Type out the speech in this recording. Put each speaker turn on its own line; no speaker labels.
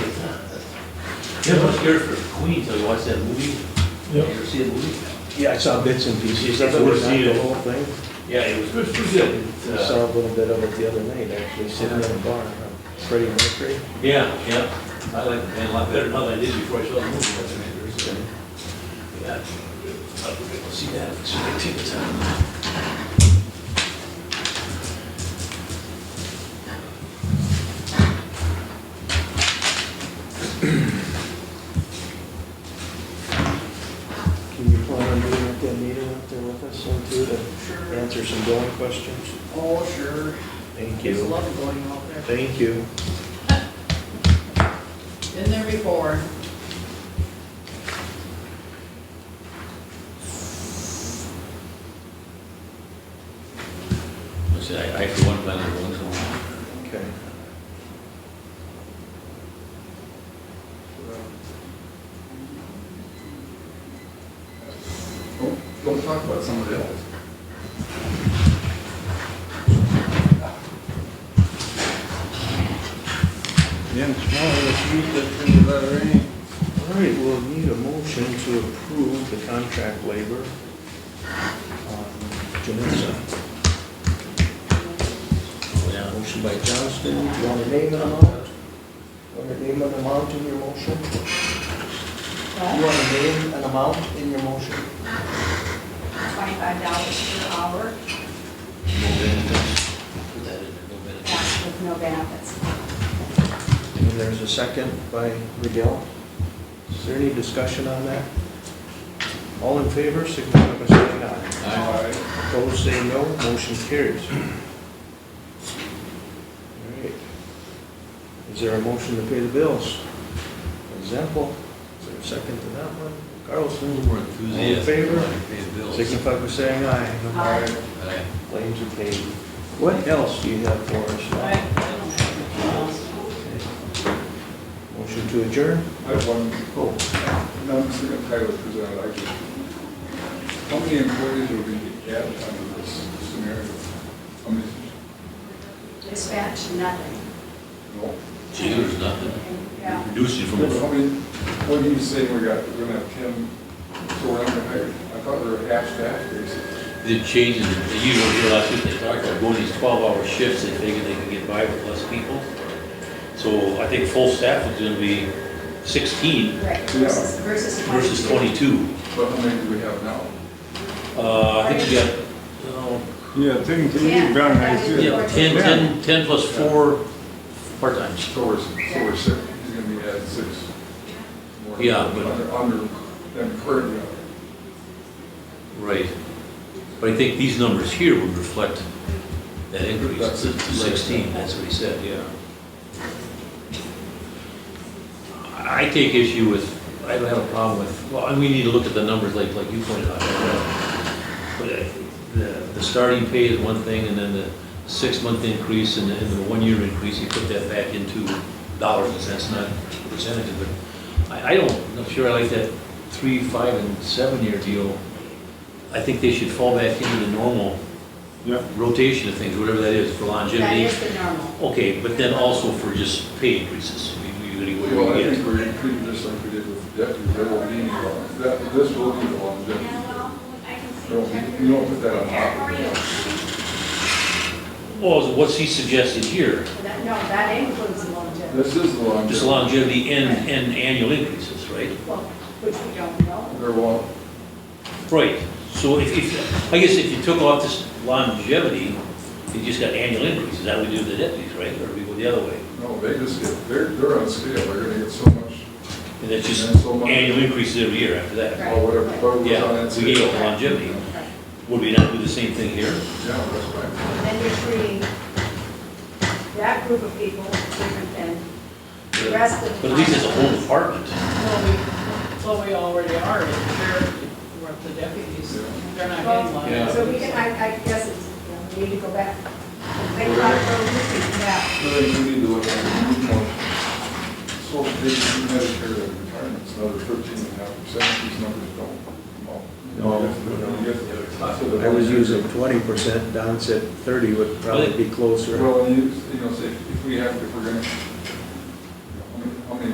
Yeah, I was scared for Queens, I watched that movie. You
Yep.
ever see a movie?
Yeah, I saw bits and pieces
Yeah,
of it, not
see
the
it.
whole thing.
Yeah, it was, it was pretty good. It's,
I
uh,
saw a little bit of it the other night, actually, sitting in a bar, Freddie Mercury.
Yeah, yeah, I like the band a lot better now than I did before I saw the movie. That's an interesting. Yeah. I'll go See that, see my tickets out.
Can you plan on being at that meeting up there with us soon too, to answer some going questions?
Oh, sure.
Thank
There's a
you.
lot going on there.
Thank you.
Been there before.
I said, I, I for one, plan on going somewhere.
Okay.
Don't- Don't talk about somebody else. Yeah, tomorrow, this week, that's gonna be about rain.
All right, we'll need a motion to approve the contract labor on Janissa.
Yeah.
Motion by Johnston, you want to name an amount? Want to name an amount in your motion? You want to name an amount in your motion?
twenty-five dollars per hour,
No benefits. Put that in there, no benefits.
that's with no benefits.
And there's a second by Miguel. Is there any discussion on that? All in favor, signify by saying aye.
Aye.
Opposed, say no. Motion carries. All right. Is there a motion to pay the bills? Example, is there a second to that one? Carlson,
People were
All in
enthusiastic,
favor?
like pay the bills.
signify by saying aye.
Aye.
Aye.
Claims are paid. What else do you have for us?
I- I don't have anything else.
Motion to adjourn?
I have one, oh, no, I'm just gonna play with, because I like it. How many employees are we gonna get under this scenario? How many,
Dispatch, nothing.
no?
Gee, there's nothing.
Yeah.
Reducing from,
How many, what do you say we got, we're gonna have ten, so we're not gonna hire, I thought we were half staff, basically.
the changes, you don't realize what they talked about, going these twelve-hour shifts, they figured they could get by with less people. So I think full staff is gonna be sixteen
Right, versus, versus twenty-two.
versus twenty-two.
But how many do we have now?
Uh, I think we got, oh,
Yeah, ten,
Yeah. brown eyes, too.
yeah, ten, ten, ten plus four part-times.
So we're, so we're six, he's gonna be at six. more.
Yeah, but-
Under, under, than currently.
Right. But I think these numbers here would reflect that increase to to sixteen, that's what he said, yeah. I take issue with, I don't have a problem with, well, and we need to look at the numbers like, like you pointed out. But uh, the, the starting pay is one thing, and then the six-month increase and the, and the one-year increase, you put that back into dollars and cents, not percentages, but I, I don't, I'm not sure I like that three, five, and seven-year deal. I think they should fall back into the normal
Yeah.
rotation of things, whatever that is, for
That
longevity.
is the normal.
Okay, but then also for just pay increases, We- we- we- we
Well, I
get-
think we're including just like we did with the deputy, there will be any law, that, this will be the law, deputy. Don't- You don't put that on top. of it.
Well, what's he suggested here,
That- No, that includes the longevity,
This is the law.
just longevity and, and annual increases, right?
well, which we don't know.
There will,
Right, so if, if, I guess if you took off this longevity, you just got annual increases, that would do the deputies, right, or we go the other way?
no, they just get, they're, they're on scale, they're gonna get so much,
And that's just
And so much-
annual increases every year after that.
Right.
or whatever, what was on
Yeah,
that.
we gave
scale.
up longevity,
Right.
would we not do the same thing here?
Yeah, that's right.
Then you're treating that group of people different than the rest of the.
But at least it's a whole department.
Well, we, so we already are, if they're, we're the deputies, they're not getting money.
Yeah.
So we can, I, I guess it's, you know, we need to go back. Think about it, go look at that.
I think we need to look at the new motion. So they do Medicare and retirement, it's another thirteen and a half percent, these numbers don't come up.
No,
You get- you get- so the-
I was using twenty percent, Don said thirty would probably be closer.
Well, you, you know, say, if we have, if we're gonna